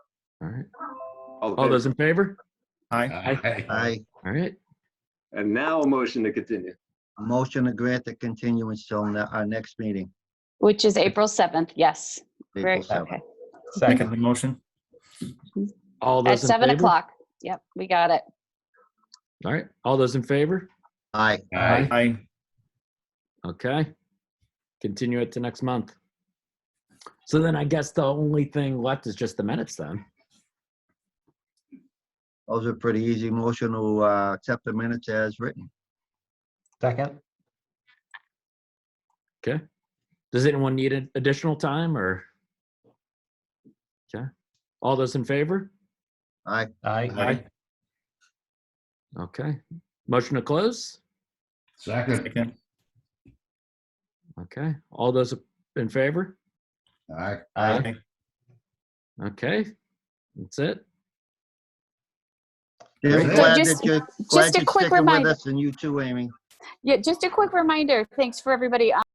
All right. All in All favor? those in favor? Aye. Aye. Aye. All right. And now a motion to continue. Motion to grant the continuance till ne- our next meeting. Which is April 7th, yes. Very- April 7th. okay. Second the motion. All At those in 7 favor? o'clock. Yep, we got it. All right. All those in favor? Aye. Aye. Aye. Okay. Continue it to next month. So then I guess the only thing left is just the minutes then. Those are pretty easy. Motion to uh, accept the minutes as written. Second. Okay. Does anyone need an additional time or? Okay. All those in favor? Aye. Aye. Okay. Motion to close? Second. Second. Okay. All those in favor? Aye. Aye. Okay. That's it. Just So glad just- that you're- just glad a you're quick sticking with reminder. us And you too, Amy. Yeah, just a quick reminder, thanks for everybody